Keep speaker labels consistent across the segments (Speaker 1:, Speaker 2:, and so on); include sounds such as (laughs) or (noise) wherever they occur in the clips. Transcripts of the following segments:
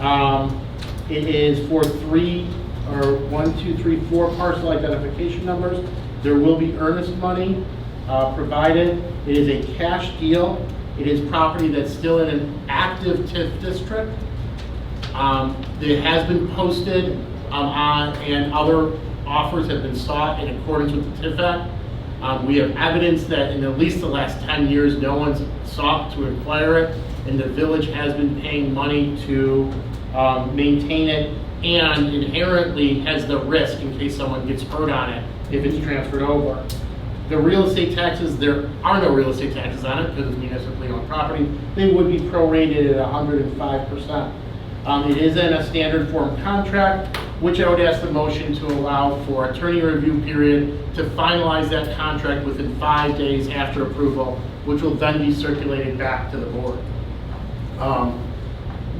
Speaker 1: Um, It is for three, or one, two, three, four parcel identification numbers. There will be earnest money uh, provided. It is a cash deal. It is property that's still in an active TIF district. Um, It has been posted um, on, and other offers have been sought in accordance with the TIF Act. Um, We have evidence that in at least the last 10 years, no one's sought to acquire it, and the village has been paying money to um, maintain it, and inherently has the risk in case someone gets hurt on it if it's transferred over. The real estate taxes, there are no real estate taxes on it because it's municipally owned property. They would be prorated at 105%. Um, It is in a standard form contract, which I would ask the motion to allow for attorney review period to finalize that contract within five days after approval, which will then be circulated back to the board. Um,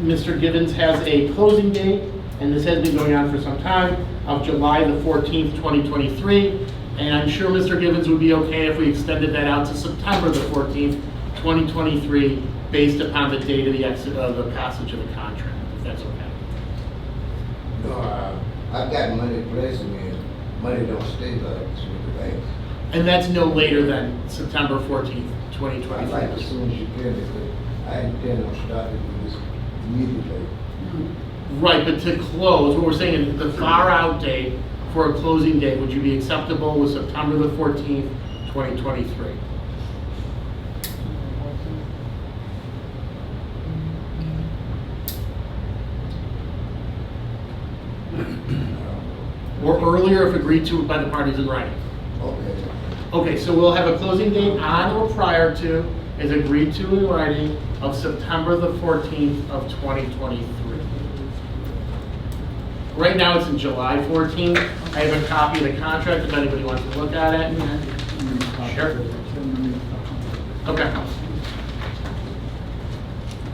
Speaker 1: Mr. Givens has a closing date, and this has been going on for some time, of July the 14th, 2023. And I'm sure Mr. Givens would be okay if we extended that out to September the 14th, 2023, based upon the date of the exit, of the passage of the contract, if that's okay.
Speaker 2: No, I- I got money placing in, money don't stay like this with the banks.
Speaker 1: And that's no later than September 14th,
Speaker 2: I like as
Speaker 1: 2023.
Speaker 2: soon as you can, because I intend on starting this immediately.
Speaker 1: Right, but to close, what we're saying is the far out date for a closing date, would you be acceptable with September the 14th, 2023?
Speaker 2: Um,
Speaker 1: or earlier if agreed to by the parties in writing.
Speaker 2: Okay,
Speaker 1: Okay, so we'll have a closing date on or prior to, as agreed to in writing, of September the 14th of 2023. Right now, it's in July 14th. I have a copy of the contract if anybody wants to look at it. Sure. Okay.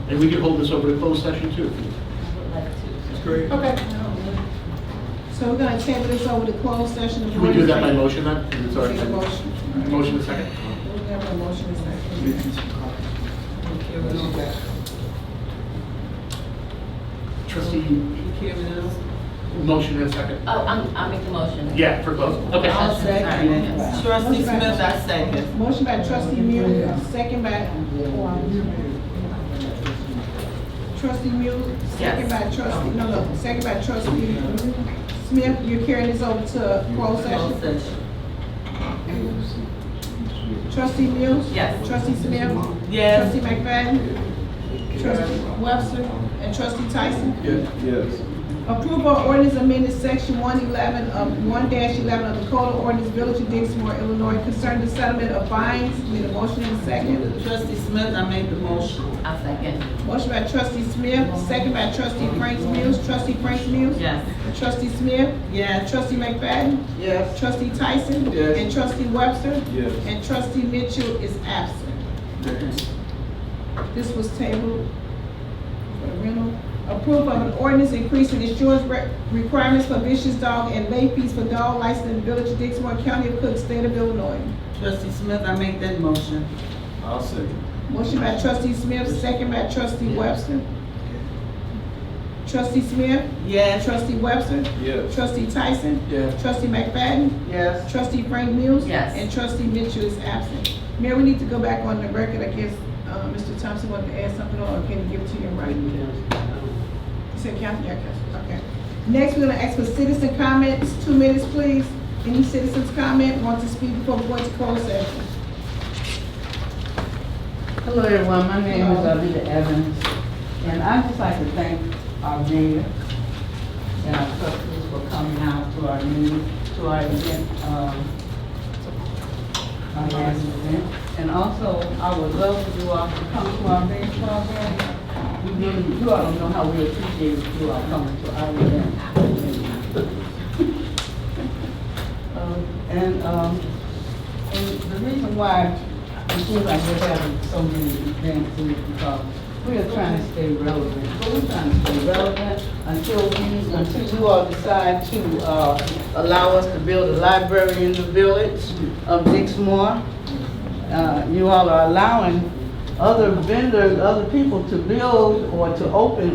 Speaker 1: And we can hold this over to closed session too. if you- Okay.
Speaker 3: So we're gonna table this over to closed session.
Speaker 1: Can we do that by motion then? 'Cause it's already-
Speaker 3: Need a motion.
Speaker 1: Motion a second.
Speaker 3: We have a motion in second.
Speaker 1: Trustee, motion and a second.
Speaker 4: Oh, I'm, I'll make the motion.
Speaker 1: Yeah, for close. Okay.
Speaker 4: I'll
Speaker 3: second.
Speaker 5: Trustee Smith, I second.
Speaker 3: Motion by trustee Mew, second by, trustee Mew, second by trustee, no, no, second by trustee Smith, you're carrying this over to closed
Speaker 5: Closed
Speaker 3: session.
Speaker 5: session.
Speaker 3: Trustee Mew?
Speaker 5: Yes.
Speaker 3: Trustee Smith?
Speaker 5: Yes.
Speaker 3: Trustee McFadden? Trustee Webster? And trustee Tyson?
Speaker 6: Yes.
Speaker 3: Approval of ordinance amended section one eleven of one eleven of the Code of Ordinance Village of Dixmoor, Illinois concerning the settlement of fines. Need a motion in second.
Speaker 5: Trustee Smith, I made the motion.
Speaker 4: I'll second.
Speaker 3: Motion by trustee Smith, second by trustee Frank Mills. Trustee Frank Mills.
Speaker 5: Yes.
Speaker 3: Trustee Smith.
Speaker 5: Yes.
Speaker 3: Trustee McFadden.
Speaker 5: Yes.
Speaker 3: Trustee Tyson.
Speaker 6: Yes.
Speaker 3: And trustee Webster.
Speaker 6: Yes.
Speaker 3: And trustee Mitchell is absent. This was tabled for the rental. Approval of an ordinance increasing insurance re- requirements for vicious dog and lay fees for dog licensed in the village of Dixmoor, County of Cook, State of Illinois.
Speaker 5: Trustee Smith, I made that motion.
Speaker 6: I'll second.
Speaker 3: Motion by trustee Smith, second by trustee Webster. Trustee Smith,
Speaker 5: Yes.
Speaker 3: trustee Webster,
Speaker 6: Yes.
Speaker 3: trustee Tyson,
Speaker 6: Yes.
Speaker 3: trustee McFadden,
Speaker 5: Yes.
Speaker 3: trustee Frank Mills.
Speaker 4: Yes.
Speaker 3: And trustee Mitchell is absent. Mayor, we need to go back on the record. I guess, uh, Mr. Thompson wanted to add something or can he give it to you in writing? You said Kathy, yeah, Kathy, okay. Next, we're gonna ask for citizen comments, two minutes, please. Any citizens comment, want to speak before we go into closed session?
Speaker 7: Hello, everyone. My name is Alita Evans, and I'd just like to thank our mayor and our trustees for coming out to our meeting, to our event, um, our last event. And also, I would love for you all to come to our baseball game. We really, you all don't know how we appreciate you all coming to our event. (laughs) Um, And, um, and the reason why it seems like we're having so many events is because we are trying to stay relevant. But we're trying to stay relevant until we, until you all decide to, uh, allow us to build a library in the village of Dixmoor. Uh, you all are allowing other vendors, other people to build or to open